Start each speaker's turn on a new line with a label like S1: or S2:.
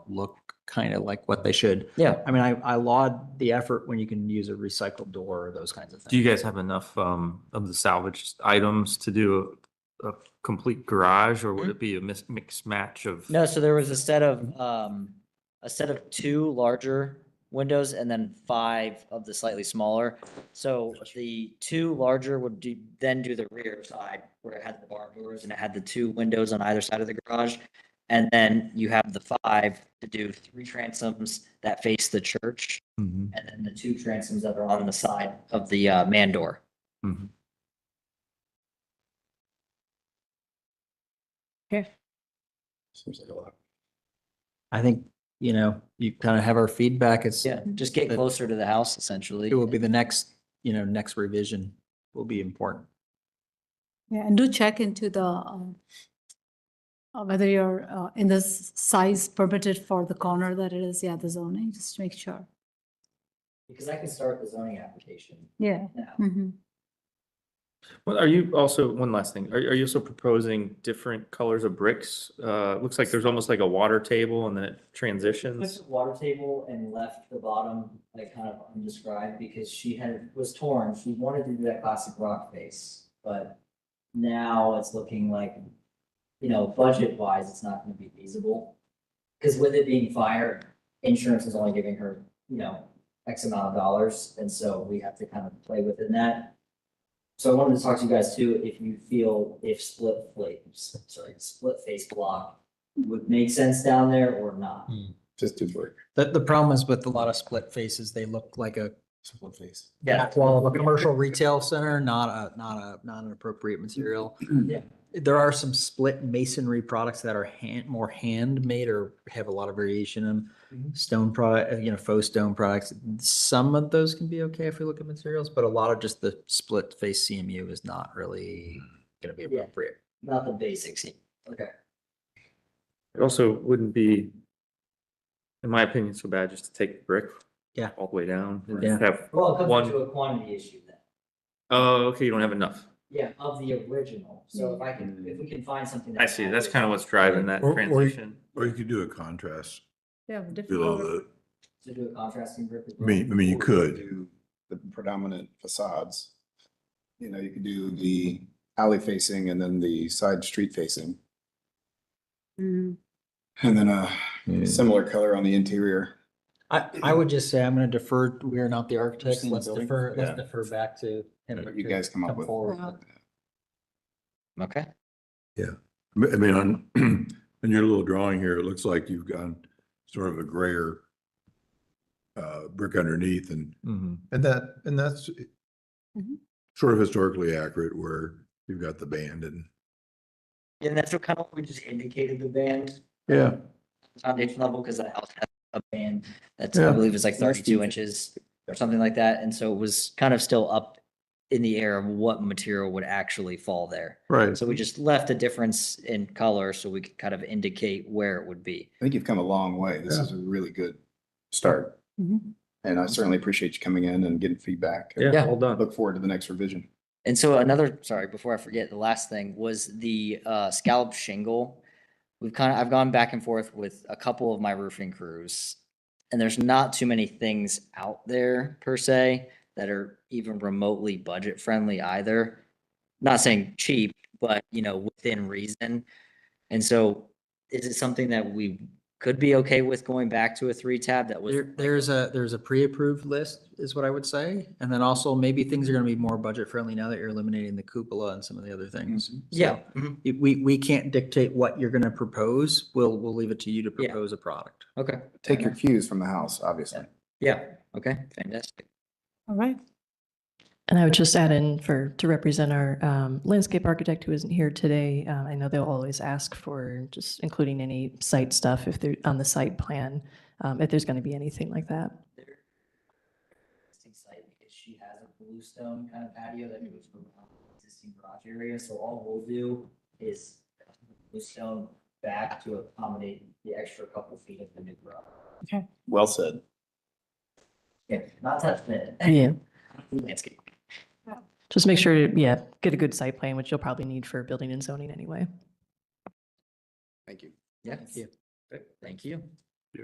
S1: look kind of like what they should.
S2: Yeah.
S1: I mean, I, I laud the effort when you can use a recycled door or those kinds of
S3: Do you
S1: things.
S3: guys have enough um of the salvaged items to do a a complete garage or would it be a mis- mixed match of?
S2: No, so there was a set of, um, a set of two larger windows and then five of the slightly smaller. So the two larger would do, then do the rear side where it had the barn doors and it had the two windows on either side of the garage. And then you have the five to do three transoms that face the church
S4: Mm-hmm.
S3: Mhm.
S2: and then the two transoms that are on the side of the, uh, man door.
S3: Mhm.
S1: Seems like a lot. I think, you know, you kind of have our feedback. It's,
S2: Yeah, just get closer to the house essentially.
S1: it will be the next, you know, next revision will be important.
S5: Yeah, and do check into the, um, uh, whether you're uh, in the s- size permitted for the corner that it is, yeah, the zoning, just to make sure.
S2: Because I can start the zoning application
S5: Yeah.
S2: now.
S5: Mhm.
S3: Well, are you also, one last thing, are are you also proposing different colors of bricks? Uh, it looks like there's almost like a water table and then it
S2: Took
S3: transitions.
S2: the water table and left the bottom like kind of undescribed because she had, was torn. She wanted to do that classic rock face, but now it's looking like, you know, budget wise, it's not gonna be feasible. Because with it being fire, insurance is only giving her, you know, X amount of dollars, and so we have to kind of play within that. So I wanted to talk to you guys too, if you feel if split flames, sorry, split face block would make sense down there or not.
S4: Just do brick.
S1: The, the problem is with a lot of split faces, they look like a,
S4: Split face.
S2: Yeah.
S1: well, a commercial retail center, not a, not a, not an appropriate material.
S2: Yeah.
S1: There are some split masonry products that are hand, more handmade or have a lot of variation in them. Stone product, uh, you know, faux stone products. Some of those can be okay if we look at materials, but a lot of just the split face CMU is not really gonna be
S2: Yeah.
S1: appropriate.
S2: Not the basics. Okay.
S3: It also wouldn't be, in my opinion, so bad just to take brick.
S1: Yeah.
S3: All the way down. and
S1: Yeah.
S3: Have,
S2: Well, it
S3: One-
S2: comes into a quantity issue then.
S3: oh, okay, you don't have enough.
S2: Yeah, of the original. So if I can, if we can find something.
S3: I see, that's kind of what's driving that
S4: Or- or-
S3: transition.
S4: Or you could do a contrast
S5: Yeah,
S4: below
S5: different.
S2: To
S4: the,
S2: do a contrasting brick. with
S4: I mean, I mean, you could.
S6: do the predominant facades. You know, you could do the alley facing and then the side street facing,
S5: Mhm.
S6: and then a similar color on the interior.
S1: I, I would just say I'm gonna defer, we are not the architects.
S6: Seen the
S1: Let's
S6: building?
S1: defer, let's
S4: Yeah.
S1: defer back to. him
S6: What you
S1: to
S6: guys come up with.
S1: forward.
S5: Yeah.
S2: Okay.
S4: I mean, on, on your little drawing here, it looks like you've gone sort of a grayer uh, brick underneath and,
S6: Mm-hmm.
S3: Mhm.
S4: and that, and that's eh,
S5: Mhm.
S4: sort of historically accurate where you've got the band and.
S2: And that's what kind of, we just indicated the band
S4: Yeah.
S2: foundation level because the house has a band that's,
S4: Yeah.
S2: I believe is like
S6: Nice
S2: thirty-two
S6: detail.
S2: inches or something like that. And so it was kind of still up in the air of what material would actually fall there.
S4: Right.
S2: So we just left a difference in color so we could kind of indicate where it would be.
S6: I think you've come a long way. This
S4: Yeah.
S6: is a really good start,
S5: Mhm.
S6: and I certainly appreciate you coming in and getting feedback.
S3: Yeah,
S2: Yeah.
S3: well
S6: I
S3: done.
S6: Look forward to the next revision.
S2: And so another, sorry, before I forget, the last thing was the uh, scallop shingle. We've kind of, I've gone back and forth with a couple of my roofing crews, and there's not too many things out there per se that are even remotely budget friendly either. Not saying cheap, but you know, within reason. And so is it something that we could be okay with going back to a three tab that was?
S1: There, there's a, there's a pre-approved list is what I would say. And then also maybe things are gonna be more budget friendly now that you're eliminating the cupola and some of the other things.
S2: Yeah.
S1: So,
S2: mhm,
S1: it- We, we can't dictate what you're gonna propose. We'll, we'll leave it to you to
S2: Yeah.
S1: propose a product.
S2: Okay.
S6: Take your cues from the house, obviously.
S2: Yeah. Okay. Fantastic.
S5: All right.
S7: And I would just add in for, to represent our um, landscape architect who isn't here today. uh, I know they'll always ask for just including any site stuff if they're on the site plan, um, if there's going to be anything like that.
S2: there. Existing site because she has a bluestone kind of patio that goes around the existing garage area, so all we'll do is cut the bluestone back to accommodate the extra couple feet of the new garage.
S6: Well said.
S2: Yeah, not touch the
S7: Yeah.
S2: landscape.
S7: Just make sure, to yeah, get a good site plan, which you'll probably need for building and zoning anyway.
S6: Thank you.
S2: Yes. Thank you.